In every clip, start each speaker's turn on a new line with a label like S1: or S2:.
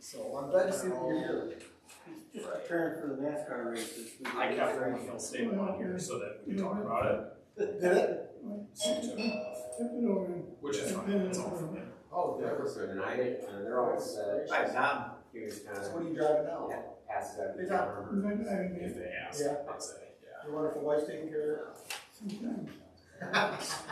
S1: So I'm glad to see that you're here.
S2: Just
S3: Right.
S2: preparing for the NASCAR races.
S3: I kept one Phil Staley on here so that we could talk about it,
S2: Did it?
S3: which is fine, it's all from there.
S1: Oh,
S4: Yeah,
S1: yeah.
S4: listen, I, uh, they're always, uh,
S1: Hi,
S4: Tom. He was kind
S1: So
S4: of
S1: what are you driving now?
S4: past that.
S1: Hey, Tom.
S3: If they ask,
S1: Yeah.
S3: I'd say, yeah.
S1: Your wonderful wife's taking care of
S3: Wow, that's.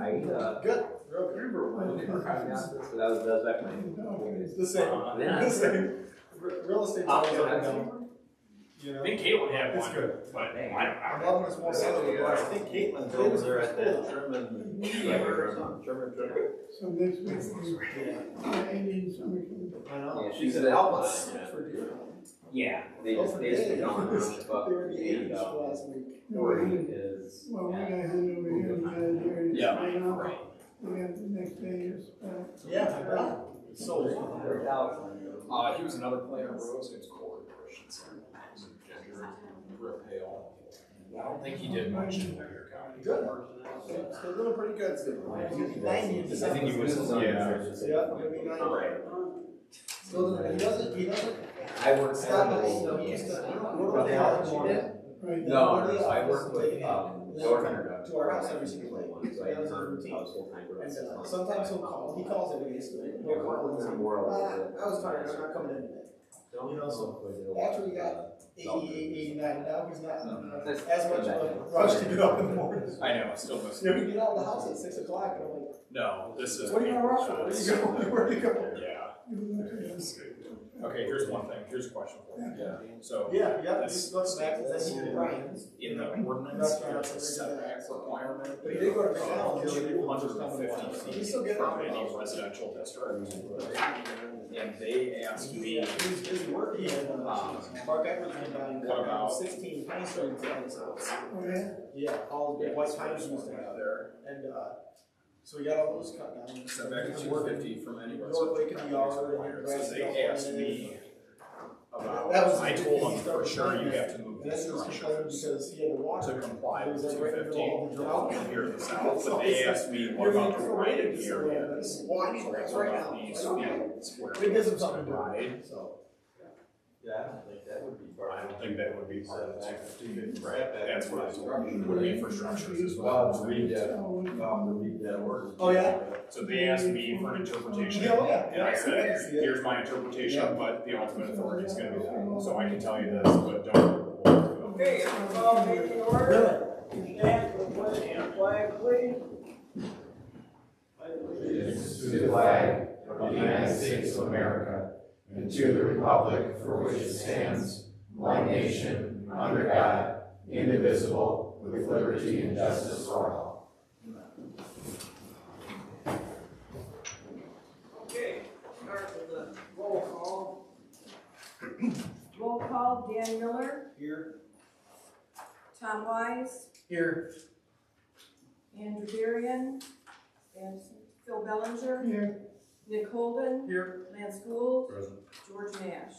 S4: I, uh,
S1: it? Good, real good.
S4: remember one, I found out this, but that was, that was back
S1: It's
S4: when.
S1: the same,
S3: Uh,
S1: the same. Re- Real estate's
S3: I'll
S1: always
S3: do
S1: up and
S3: it.
S1: down. You
S3: I
S1: know?
S3: think Caitlin had
S1: It's
S3: one,
S1: good.
S3: but I don't, I
S1: I'm
S3: don't.
S1: loving this more settled than last week.
S4: uh, Caitlin
S1: Dole's there at that
S4: German,
S3: whatever,
S4: German
S5: So next week,
S1: Yeah.
S5: ending summer camp.
S1: I know.
S4: Yeah, she's an Alpine.
S1: For dear.
S4: Yeah, they just, they just don't know, but.
S1: They were in the eighties
S4: and, uh,
S1: last week.
S4: Dory is.
S5: Well, we got
S4: yeah.
S5: him over here, we got him here. and
S3: Yeah.
S5: right now,
S4: Right.
S5: We have the next day is, uh,
S1: Yeah, I know.
S4: They're Alpine.
S3: Uh, he was another player, bro, his name's Corey Christensen, He's a ginger, real pale. I don't think he did much in Boyer County.
S1: Good. So so doing pretty good, Steve.
S3: I think he was- yeah.
S1: Yeah, maybe nine.
S4: Right.
S1: Still, doesn't- he doesn't, he doesn't
S4: I worked.
S1: stop at eight, though, he used to, I don't know what the hell she did.
S5: right now.
S4: No, no, I work with, um, door hunter.
S1: To our house every single day.
S4: So I have her house full time.
S1: And so sometimes he'll call, he calls every day, so
S4: Yeah,
S1: he'll
S4: what
S1: call and
S4: was
S1: say,
S4: in the world?
S1: "Ah, I was tired, I'm not coming in today.
S4: Don't
S1: You know,
S4: so
S1: Actually, we got Eighty-eight, eighty-nine, now he's not
S4: That's-
S1: as much of a rush to get up in the morning.
S3: I know, I still miss
S1: Yeah,
S3: him.
S1: we get out of the house at six o'clock, and I'm like,
S3: No, this is.
S1: what are you gonna rush for, where you go, where you go?
S3: Yeah.
S5: You look at us.
S3: it's good. Okay, here's one thing, here's a question for you.
S4: Yeah.
S3: So,
S1: Yeah, yeah,
S3: That's-
S1: he's going back, that's
S3: that's-
S1: Brian's.
S3: in the ordinance, there's a setback requirement.
S1: But he did go to
S3: of
S1: McDonald's, he was
S3: 150
S1: fifty,
S3: feet
S1: he's still getting.
S3: From any residential district. And they asked me,
S1: Yeah, he's, he's working in, uh, Mark Edwards went down and cut down sixteen pine trees down his house.
S5: Oh, yeah?
S1: Yeah, all the white pine trees
S3: was
S1: down
S3: out
S1: there,
S3: there,
S1: and, uh, so we got all those cut down.
S3: setback is
S1: He's
S3: two
S1: working.
S3: fifty from any residential.
S1: North Lake in the yard,
S3: required. So they asked me about,
S1: That was-
S3: I told them, for sure, you have to move
S1: This
S3: this
S1: is
S3: structure.
S1: complaining because he had to walk.
S3: to comply with
S1: Because
S3: two
S1: I read through all the drought.
S3: fifteen here in the south, but they asked me what about the right of the area.
S1: Well, I need to rent right now.
S3: These,
S1: I don't
S3: you
S1: know.
S3: know, square
S1: It gives him
S3: feet
S1: something to
S3: wide.
S1: do, so.
S4: Yeah, I don't think that would be part
S3: I
S4: of it.
S3: don't think that would be part of the two fifty.
S4: Right.
S3: That's what I told them,
S1: Mm-hmm.
S3: would be for structures as well.
S4: Well, read that,
S5: So,
S4: well, to read that word.
S1: Oh, yeah?
S3: So they asked me for an interpretation.
S1: Yeah, oh, yeah.
S3: And I
S1: Yeah.
S3: said, here's my interpretation,
S1: Yeah.
S3: but the ultimate authority is gonna be that. So I can tell you this, but don't.
S6: Okay, I'm call meeting order. Stand for pledge of flag, please.
S7: to the flag of the United States of America and to the republic for which it stands, one nation, under God, indivisible, with liberty and justice for all.
S6: Okay, start with the roll call. Roll call, Dan Miller,
S1: Here.
S6: Tom Wise,
S1: Here.
S6: Andrew Darian, and Phil Bellinger,
S5: yeah,
S6: Nick Holden,
S1: Here.
S6: Lance Gould, George Nash.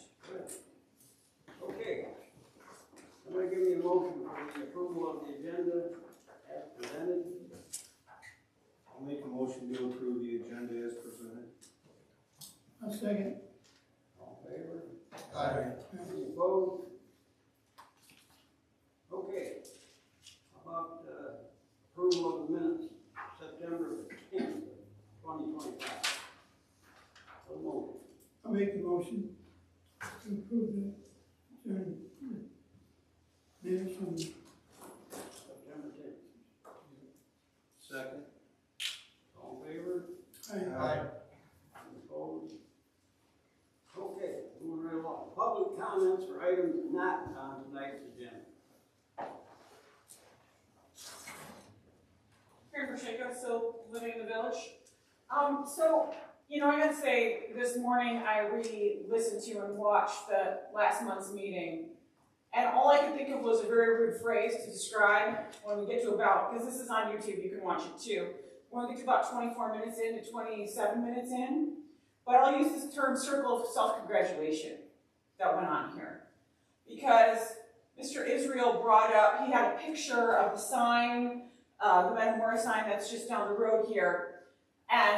S8: Okay. I'm gonna give you a motion for the approval of the agenda as presented.
S2: I'll make a motion to approve the agenda as presented.
S5: I'll second.
S8: All in favor?
S1: Aye.
S8: Any opposed? Okay. About, uh, approval of the minutes, September tenth, twenty twenty-five. So moved.
S5: I'll make the motion to approve the, adjourn- minutes from
S8: September tenth.
S2: Second.
S8: All in favor?
S1: Aye.
S8: Opposed? Okay, moving right along. Public comments for items not on tonight's agenda.
S9: Karen Pacheco, still living in the village. Um, so, you know, I gotta say, this morning I re-listened to and watched the last month's meeting. And all I could think of was a very rude phrase to describe when we get to about, because this is on YouTube, you can watch it too. When we get to about twenty-four minutes in to twenty-seven minutes in, but I'll use this term circle of self-congratulation that went on here. Because Mr. Israel brought up, he had a picture of the sign uh, the Metamora sign that's just down the road here. And